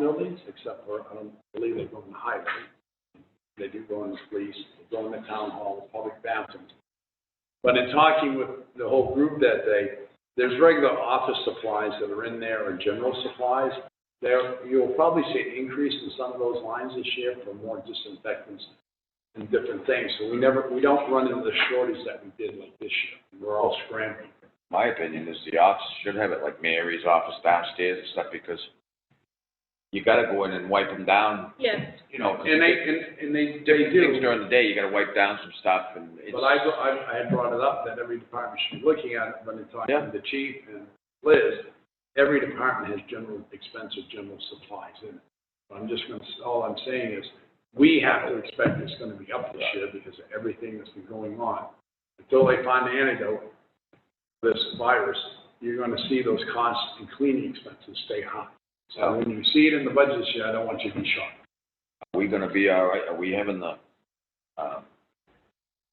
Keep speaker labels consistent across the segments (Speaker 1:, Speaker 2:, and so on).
Speaker 1: buildings, except for, I don't believe they go in the highway. They do go in the police, they go in the town hall, the public bathrooms. But in talking with the whole group that day, there's regular office supplies that are in there or general supplies. There, you'll probably see an increase in some of those lines this year for more disinfectants and different things. So we never, we don't run into the shortage that we did like this year. We're all scrambling.
Speaker 2: my opinion is the office should have it like Mary's office downstairs and stuff because you gotta go in and wipe them down,
Speaker 3: Yes,
Speaker 2: you know. 'cause
Speaker 1: And they, and, and they, they do.
Speaker 2: Things during the day, you gotta wipe down some stuff and it's,
Speaker 1: But I, I, I had brought it up that every department should be looking at it, but it's on
Speaker 2: Yeah.
Speaker 1: the chief and Liz. Every department has general expense or general supplies in it. But I'm just gonna, s- all I'm saying is, we have to expect it's gonna be up this year because of everything that's been going on. Until they find the antidote, for this virus, you're gonna see those costs and cleaning expenses stay high. So when you see it in the budget this year, I don't want you to be shocked.
Speaker 2: are we gonna be all right? Are we having the, um,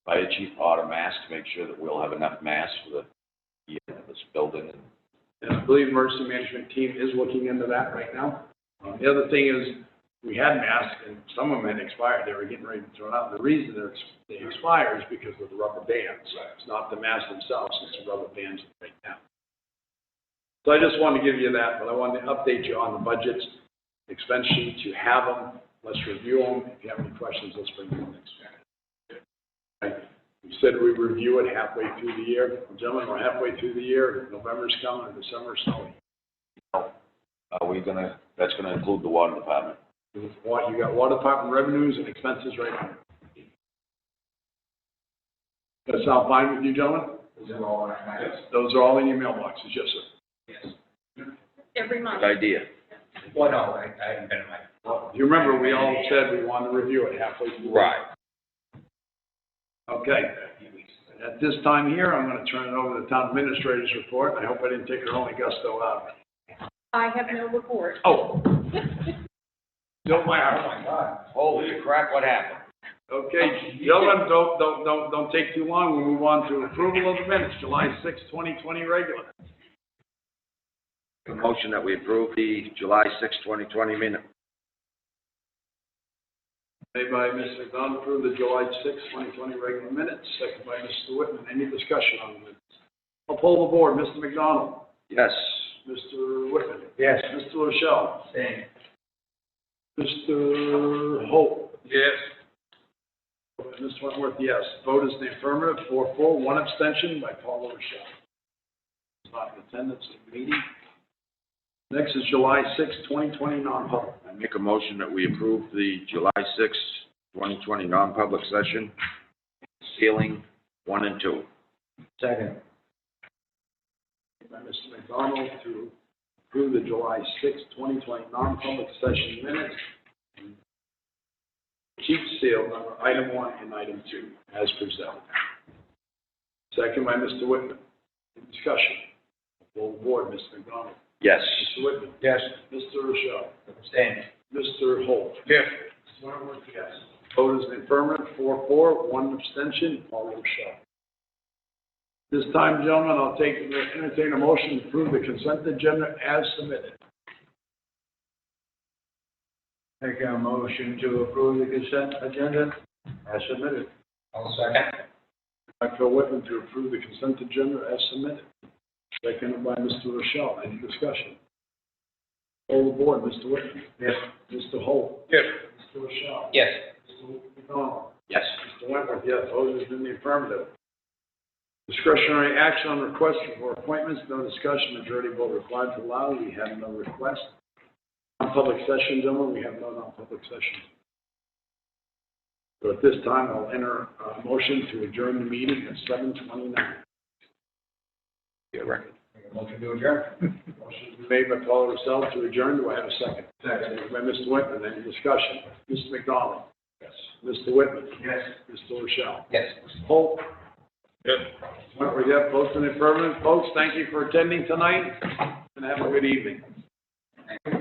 Speaker 2: fire chief order masks to make sure that we'll have enough masks for the, year of this building and
Speaker 1: And I believe emergency management team is looking into that right now. Um, The other thing is, we had masks and some of them had expired, they were getting ready to throw it out. The reason they're, ex- they expire is because of the rubber bands. It's not the masks themselves, it's the rubber bands right now. So I just wanted to give you that, but I wanted to update you on the budgets, expense sheets, you have them, let's review them. If you have any questions, let's bring them next year. Right. We said we review it halfway through the year. Gentlemen, we're halfway through the year, November's coming, and December's coming.
Speaker 2: are we gonna, that's gonna include the water department?
Speaker 1: What, you got water department revenues and expenses right now. That sound fine with you, gentlemen? Those are all in your mailboxes, yes, sir.
Speaker 3: every month.
Speaker 2: Good idea.
Speaker 4: Well, no, I, I haven't been in my, well,
Speaker 1: You remember, we all said we wanted to review it halfway through. Okay,
Speaker 4: a few weeks.
Speaker 1: at this time here, I'm gonna turn it over to the town administrator's report, I hope I didn't take her only gusto out of it.
Speaker 3: I have no report.
Speaker 1: Oh. Don't mind,
Speaker 4: Oh, my God.
Speaker 2: Holy crap, what happened?
Speaker 1: Okay, gentlemen, don't, don't, don't, don't take too long, we move on to approval of the minutes, July sixth, twenty twenty regular.
Speaker 2: A motion that we approve the July sixth, twenty twenty minute.
Speaker 1: Made by Mr. McDonald, approve the July sixth, twenty twenty regular minutes, second by Mr. Whitman. Any discussion on the minutes? I'll poll the board. Mr. McDonald,
Speaker 2: Yes.
Speaker 1: Mr. Whitman,
Speaker 4: Yes.
Speaker 1: Mr. Rochelle,
Speaker 4: Same.
Speaker 1: Mr. Holt,
Speaker 4: Yes.
Speaker 1: and Mr. Wentworth, yes. Vote is in the affirmative, four, four, one abstention by Paul Rochelle. He's Not in attendance at the meeting. Next is July sixth, twenty twenty, non-public.
Speaker 2: I make a motion that we approve the July sixth, twenty twenty non-public session, ceiling one and two.
Speaker 4: Second.
Speaker 1: Made by Mr. McDonald to approve the July sixth, twenty twenty non-public session minutes. Keep seal number item one and item two as presented. Second by Mr. Whitman. Discussion. Full board, Mr. McDonald,
Speaker 2: Yes.
Speaker 1: Mr. Whitman,
Speaker 4: Yes.
Speaker 1: Mr. Rochelle,
Speaker 4: Same.
Speaker 1: Mr. Holt.
Speaker 4: Yes.
Speaker 1: Vote is in affirmative, four, four, one abstention, Paul Rochelle. This time, gentlemen, I'll take, entertain a motion to approve the consent agenda as submitted.
Speaker 4: Make a motion to approve the consent agenda as submitted. I'll second.
Speaker 1: By Phil Whitman to approve the consent agenda as submitted. Seconded by Mr. Rochelle. Any discussion? All aboard, Mr. Whitman.
Speaker 4: Yes.
Speaker 1: Mr. Holt.
Speaker 4: Yes.
Speaker 1: Mr. Rochelle.
Speaker 4: Yes.
Speaker 1: Mr. McDonald.
Speaker 2: Yes.
Speaker 1: Mr. Wentworth, yes. Vote is in the affirmative. Discretionary action on requests for appointments, no discussion, majority vote required to allow. We have no request. Non-public session, gentlemen, we have no non-public session. So at this time, I'll enter a motion to adjourn the meeting at seven twenty-nine.
Speaker 2: Your record.
Speaker 4: Make a motion to adjourn.
Speaker 1: Motion made by Paul Russell to adjourn. Do I have a second? Second. By Mr. Whitman, any discussion? Mr. McDonald?
Speaker 4: Yes.
Speaker 1: Mr. Whitman?
Speaker 4: Yes.
Speaker 1: Mr. Rochelle?
Speaker 4: Yes.
Speaker 1: Holt? Yes. Wentworth, yes. Both in the affirmative. Folks, thank you for attending tonight, and have a good evening.